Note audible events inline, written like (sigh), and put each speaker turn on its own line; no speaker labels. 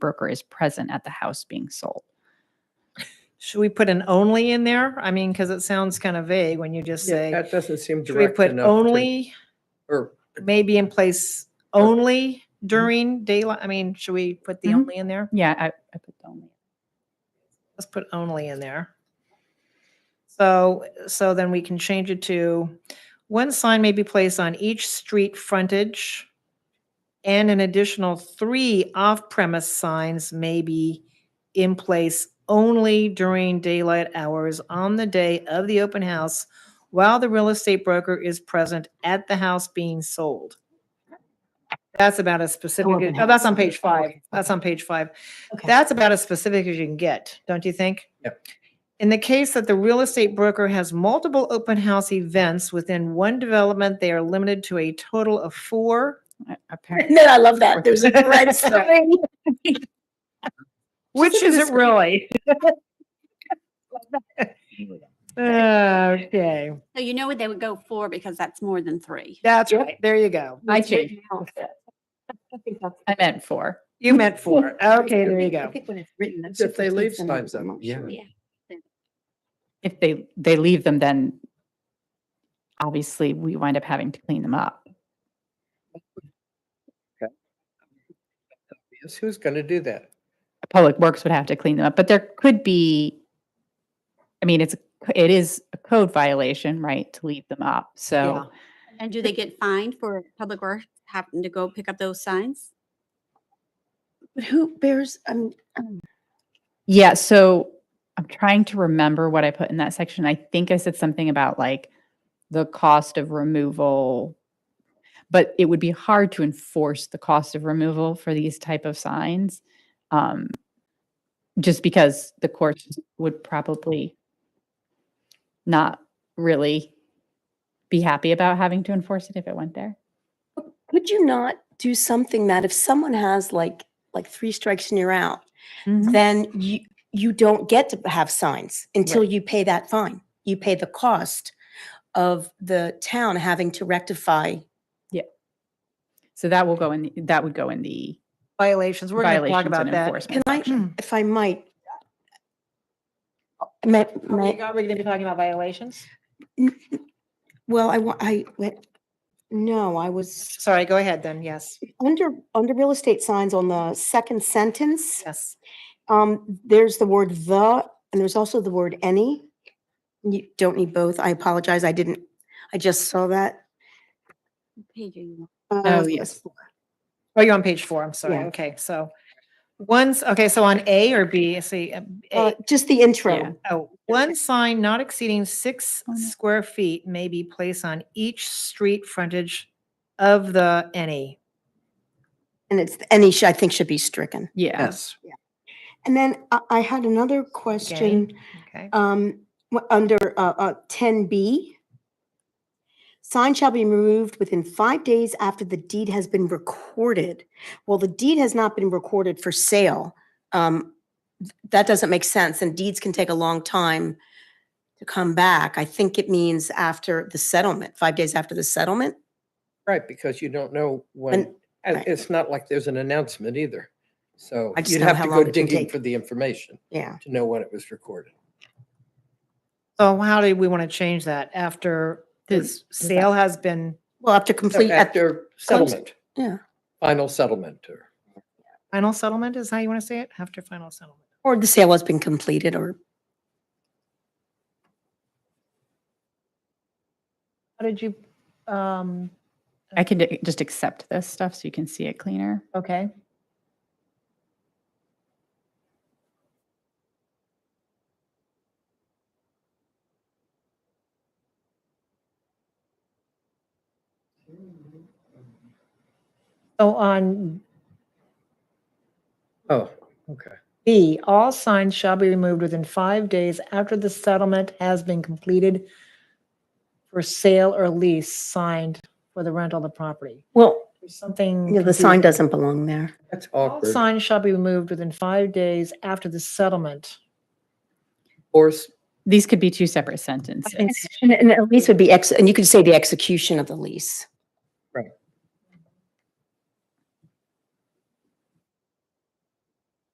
broker is present at the house being sold.
Should we put an only in there? I mean, because it sounds kind of vague when you just
Yeah,
say,
That doesn't seem
should we
direct
put
enough. to-
only,
Or,
maybe in place only
Mm-hmm.
during daylight? I mean, should we put the
Mhm.
only in there?
Yeah, I, I put the only.
Let's put only in there. So, so then we can change it to, one sign may be placed on each street frontage and an additional three off-premise signs may be in place only during daylight hours on the day of the open house while the real estate broker is present at the house being sold. That's about as specific,
open
oh, that's
house.
on page five.
Okay.
That's on page five.
Okay.
That's about as specific as you can get, don't you think?
Yep.
In the case that the real estate broker has multiple open house events within one development, they are limited to a total of four.
I- Apparently,
No, I love that. There's a red sign.
Which is it really? (laughs) Okay,
So you know what they would go for because that's more than three.
that's
Yep.
right. There you go.
I
That's what
changed.
now it says. I think that's-
I meant four.
You meant four. Okay, there you
I
go.
think when it's written. that's
If they
just
leave
something that
signs
we
up,
want.
yeah.
Yeah.
If they, they leave them, then obviously we wind up having to clean them up.
yes, who's going to do that?
Public Works would have to clean them up, but there could be, I mean, it's, a c- it is a code violation, right, to leave them up.
Yeah.
So
And do they get fined for public works having to go pick up those signs?
But who bears, um, um,
Yeah, so I'm trying to remember what I put in that section. I think I said something about like the cost of removal, but it would be hard to enforce the cost of removal for these type of signs. Um, just because the courts would probably not really be happy about having to enforce it if it went there.
could you not do something that if someone has like, like three strikes and you're out,
Mm-hmm.
Mm-hmm.
then you, you don't get to have signs until you pay that fine. You pay the cost of the town having to rectify.
So that will go in, the- that would go in the,
Violations. We're going to talk
Violations and
about that.
enforcement
I- Mm.
section. If I might. uh, My,
Are we
my,
going to be talking about violations?
N- n- Well, I want, I, went- no, I was
Sorry, go ahead then. Yes,
under, under real estate signs on the second sentence.
yes.
Um, there's the word the, and there's also the word any. You don't need both. I apologize. I didn't, I just saw that.
What page are you on?
uh,
Oh,
so
yes.
it's-
Oh, you're on page four. I'm sorry.
Yeah.
Okay, so once, okay, so on A or B, see, uh,
uh,
A,
Just the intro.
Oh, one sign not exceeding six
Oh, no.
square feet may be placed on each street frontage of the any.
And it's, any, sh- I think should be stricken.
yeah.
Yes.
And then I, I had another question.
Okay.
Um, wh- under, uh, uh, ten B. Sign shall be removed within five days after the deed has been recorded. Well, the deed has not been recorded for sale. Um, th- that doesn't make sense and deeds can take a long time to come back. I think it means after the settlement, five days after the settlement.
Right, because you don't know when,
And
and
right.
it's not like there's an announcement either. So
I just
you'd
know
have
how
to
long
go
it can
digging
take.
for the information
yeah,
to know when it was recorded.
So how do we want to change that after
The-
this sale has been
well, after
So
complete, at-
After settlement.
yeah.
Final settlement or.
final settlement is how you want to say it? After final settlement.
or the sale has been completed or
How did you, um,
I can d- just accept this stuff so you can see it cleaner.
okay. So on
Oh, okay.
B, all signs shall be removed within five days after the settlement has been completed for sale or lease signed for the rental of the property.
Well,
There's something.
you know, the
confusing.
sign doesn't belong there.
That's
All
awkward.
signs shall be removed within five days after the settlement.
Or, s-
These could be two separate sentences.
And, and at least would be ex, and you could say the execution of the lease.